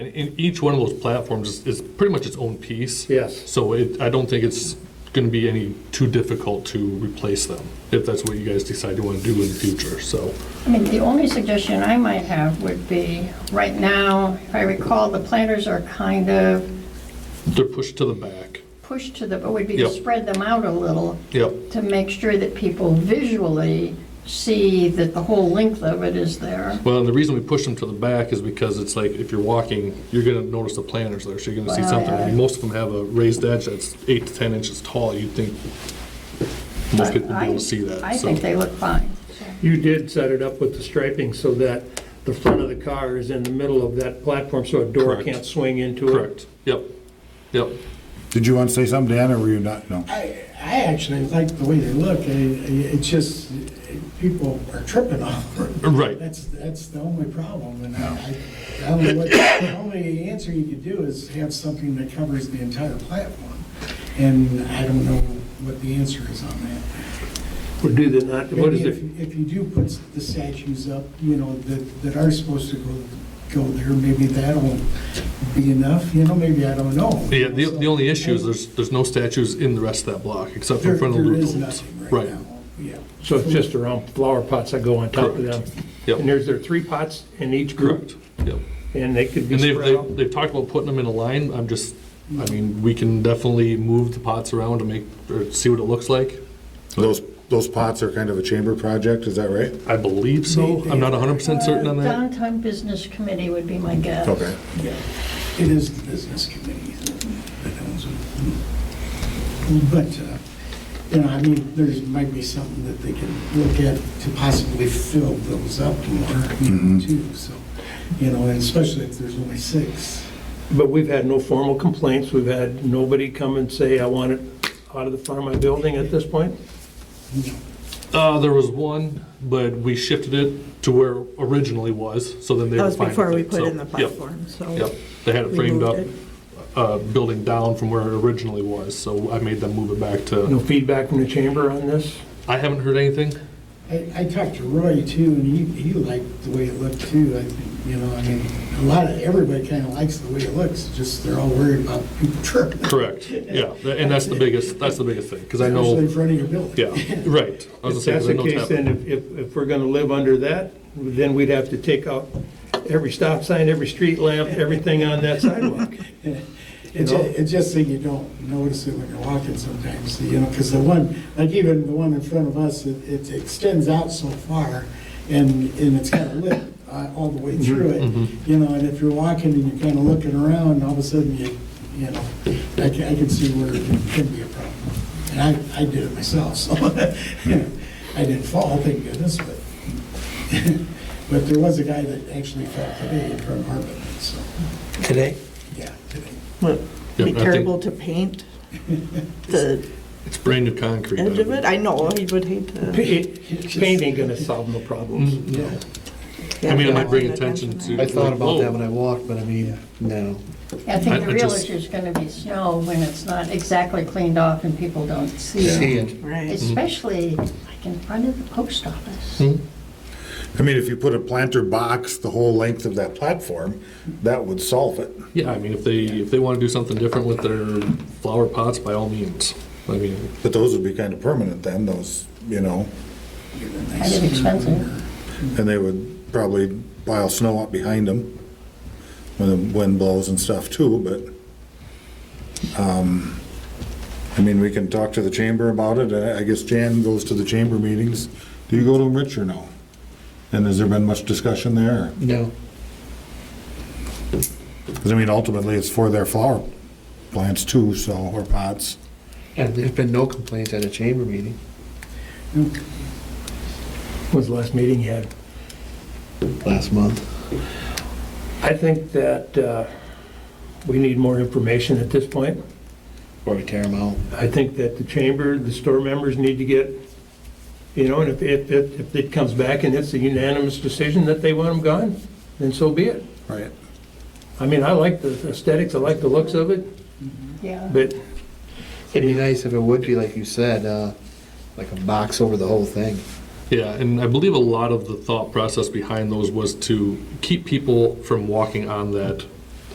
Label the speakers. Speaker 1: And, and each one of those platforms is, is pretty much its own piece.
Speaker 2: Yes.
Speaker 1: So it, I don't think it's gonna be any too difficult to replace them, if that's what you guys decide you wanna do in the future, so.
Speaker 3: I mean, the only suggestion I might have would be, right now, if I recall, the planters are kind of
Speaker 1: They're pushed to the back.
Speaker 3: pushed to the, it would be to
Speaker 1: Yep.
Speaker 3: spread them out a little
Speaker 1: Yep,
Speaker 3: to make sure that people visually see that the whole length of it is there.
Speaker 1: well, and the reason we push them to the back is because it's like, if you're walking, you're gonna notice the planters there, so you're gonna see
Speaker 3: Wow,
Speaker 1: something.
Speaker 3: yeah.
Speaker 1: And Most of them have a raised edge that's eight to ten inches tall, you'd think most people would be able to see that, so.
Speaker 3: I think they look fine.
Speaker 2: You did set it up with the striping so that the front of the car is in the middle of that platform, so a door
Speaker 1: Correct.
Speaker 2: can't swing into it.
Speaker 1: Correct, yep, yep.
Speaker 4: Did you want to say something, Dan, or were you not? No.
Speaker 5: I, I actually like the way they look. I- I- It's just, people are tripping over it.
Speaker 1: Right.
Speaker 5: That's, that's the only problem, and I, I don't know what, the only answer you could do is have something that covers the entire platform, and I don't know what the answer is on that.
Speaker 2: Or do they not, what is
Speaker 5: Maybe
Speaker 2: it?
Speaker 5: If if you do put the statues up, you know, that, that are supposed to go, go there, maybe that'll be enough, you know, maybe, I don't know.
Speaker 1: Yeah, the, the only issue is
Speaker 5: So-
Speaker 1: there's, there's no statues in the rest of that block, except for
Speaker 5: There
Speaker 1: in front of the
Speaker 5: there
Speaker 1: loop
Speaker 5: is
Speaker 1: holes.
Speaker 5: nothing right
Speaker 1: Right,
Speaker 5: now, yeah.
Speaker 2: So it's just around flower pots that go on top of them.
Speaker 1: Correct.
Speaker 2: And
Speaker 1: yep,
Speaker 2: there's, there are three pots in each group,
Speaker 1: correct, yep.
Speaker 2: and they could be
Speaker 1: And they've,
Speaker 2: spread out.
Speaker 1: they've, they've talked about putting them in a line, I'm just, I mean, we can definitely move the pots around to make, or see what it looks like.
Speaker 4: Those, those pots are kind of a chamber project, is that right?
Speaker 1: I believe so, I'm not hundred percent certain on that.
Speaker 3: Downtown Business Committee would be my guess.
Speaker 4: Okay.
Speaker 5: Yeah, it is the business committee that owns it. But, uh, you know, I mean, there might be something that they can look at to possibly fill those up more, you
Speaker 1: Mm-hmm.
Speaker 5: know, too, so, you know, and especially if there's only six.
Speaker 2: But we've had no formal complaints, we've had nobody come and say, I want it out of the front of my building at this point?
Speaker 1: Uh, there was one, but we shifted it to where originally was, so then they
Speaker 6: That
Speaker 1: were
Speaker 6: was
Speaker 1: fine with
Speaker 6: before we
Speaker 1: it,
Speaker 6: put
Speaker 1: so,
Speaker 6: in the
Speaker 1: yep,
Speaker 6: platform, so.
Speaker 1: Yep, they had it
Speaker 6: we
Speaker 1: framed
Speaker 6: moved
Speaker 1: up,
Speaker 6: it.
Speaker 1: uh, building down from where it originally was, so I made them move it back to,
Speaker 2: No feedback from the chamber on this?
Speaker 1: I haven't heard anything.
Speaker 5: I, I talked to Roy too, and he, he liked the way it looked too, I, think, you know, I mean, a lot of, everybody kind of likes the way it looks, just they're all worried about people tripping.
Speaker 1: Correct, yeah, tha- and that's the biggest, that's the biggest thing, because I
Speaker 5: Especially in
Speaker 1: know,
Speaker 5: front of your building.
Speaker 1: yeah, right. I was gonna
Speaker 2: If
Speaker 1: say,
Speaker 2: that's
Speaker 1: 'cause I
Speaker 2: the
Speaker 1: know it's
Speaker 2: case, then
Speaker 1: happening.
Speaker 2: if, if if we're gonna live under that, then we'd have to take out every stop sign, every street lamp, everything on that sidewalk.
Speaker 5: It ju- It's just that you don't notice it when you're walking sometimes, you know, because the one, like even the one in front of us, it- it extends out so far, and, and it's kind of lit uh, all the way through it, you know, and if you're walking and you're kind of looking around, all of a sudden you, you know, I can, I can see where it can- can be a problem. And I, I did it myself, so, you know, I didn't fall, thank goodness, but, but there was a guy that actually fell today in front of Harbor, so,
Speaker 7: today.
Speaker 5: yeah, today.
Speaker 1: Yeah,
Speaker 6: Be
Speaker 1: I think
Speaker 6: terrible to paint the
Speaker 1: It's brand new concrete.
Speaker 6: edge of
Speaker 1: I
Speaker 6: it. I know, he would hate to.
Speaker 2: Paint ain't gonna solve no
Speaker 1: Mm,
Speaker 2: problems.
Speaker 5: Yeah.
Speaker 1: I mean, it might bring attention to-
Speaker 7: I thought about that when I walked, but I mean, no.
Speaker 3: I
Speaker 1: I-
Speaker 3: think the
Speaker 1: I
Speaker 3: real
Speaker 1: just-
Speaker 3: issue is going to be snow when it's not exactly cleaned off and people don't see
Speaker 7: See
Speaker 3: it.
Speaker 7: it.
Speaker 6: Right.
Speaker 3: Especially like in front of the post
Speaker 1: Hmm.
Speaker 3: office.
Speaker 4: I mean, if you put a planter box the whole length of that platform, that would solve it.
Speaker 1: Yeah, I mean, if they, if they want to do something different with their flower pots, by all means. I mean,
Speaker 4: But those would be kind of permanent then, those, you know,
Speaker 3: Kind of expensive.
Speaker 4: and they would probably pile snow up behind them when the wind blows and stuff too, but, um, I mean, we can talk to the chamber about it. I I guess Jan goes to the chamber meetings. Do you go to them, Rich, or no? And has there been much discussion there? or-
Speaker 7: No.
Speaker 4: Because I mean, ultimately, it's for their flower plants too, so, or pots.
Speaker 7: And there's been no complaints at a chamber meeting.
Speaker 2: When's the last meeting you had?
Speaker 7: Last month.
Speaker 2: I think that uh, we need more information at this point.
Speaker 7: Or we tear them out.
Speaker 2: I think that the chamber, the store members need to get, you know, and if, if, if if it comes back and it's a unanimous decision that they want them gone, then so be it.
Speaker 4: Right.
Speaker 2: I mean, I like the aesthetics, I like the looks of it,
Speaker 3: Yeah.
Speaker 2: but
Speaker 7: It'd be nice if it would be, like you said, uh, like a box over the whole thing.
Speaker 1: yeah, and I believe a lot of the thought process behind those was to keep people from walking on that